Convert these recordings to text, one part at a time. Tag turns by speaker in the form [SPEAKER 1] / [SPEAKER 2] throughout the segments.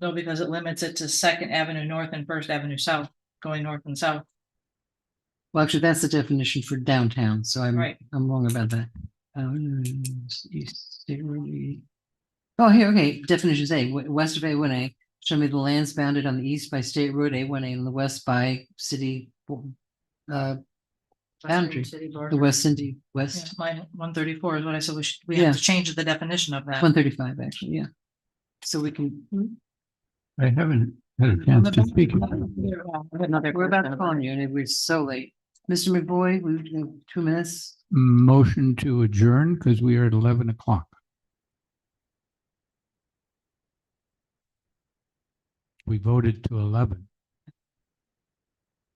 [SPEAKER 1] No, because it limits it to Second Avenue North and First Avenue South, going north and south.
[SPEAKER 2] Well, actually, that's the definition for downtown, so I'm,
[SPEAKER 1] Right.
[SPEAKER 2] I'm wrong about that. Um, East State Road. Oh, here, okay, definitions A, we- west of A one A, show me the lands bounded on the east by State Road A one A and the west by city. Uh, Boundary,
[SPEAKER 3] City
[SPEAKER 2] the
[SPEAKER 3] border.
[SPEAKER 2] West Cindy,
[SPEAKER 1] Yeah,
[SPEAKER 2] west,
[SPEAKER 1] Line one thirty-four is what I said, we should, we have to change the definition of that.
[SPEAKER 2] one thirty-five, actually, yeah. So we can,
[SPEAKER 4] I haven't had a chance to speak.
[SPEAKER 3] Another
[SPEAKER 2] we're
[SPEAKER 3] person
[SPEAKER 2] about to
[SPEAKER 3] over
[SPEAKER 2] call on
[SPEAKER 3] there.
[SPEAKER 2] you, and we're so late. Mr. McBoy, we, we have two minutes,
[SPEAKER 4] Motion to adjourn because we are at eleven o'clock. We voted to eleven.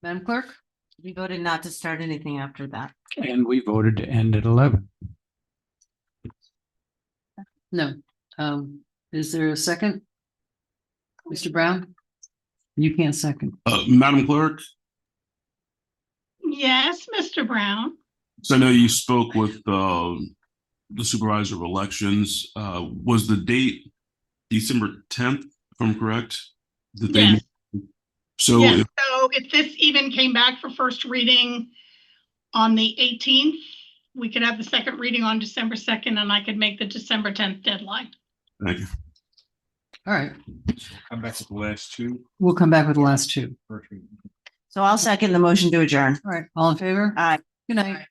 [SPEAKER 2] Madam Clerk?
[SPEAKER 3] We voted not to start anything after that.
[SPEAKER 4] And we voted to end at eleven.
[SPEAKER 2] No, um, is there a second? Mr. Brown? You can't second.
[SPEAKER 5] Uh, Madam Clerk,
[SPEAKER 6] Yes, Mr. Brown.
[SPEAKER 5] so I know you spoke with, um, the supervisor of elections, uh, was the date December tenth, if I'm correct? That they-
[SPEAKER 6] Yes.
[SPEAKER 5] So,
[SPEAKER 6] Yes,
[SPEAKER 5] if-
[SPEAKER 6] so if this even came back for first reading on the eighteenth, we could have the second reading on December second and I could make the December tenth deadline.
[SPEAKER 5] thank you.
[SPEAKER 2] All right,
[SPEAKER 7] I'm back to the last two.
[SPEAKER 2] we'll come back with the last two.
[SPEAKER 7] First reading.
[SPEAKER 3] So I'll second the motion to adjourn.
[SPEAKER 2] All right, all in favor?
[SPEAKER 3] Aye.
[SPEAKER 2] Good night.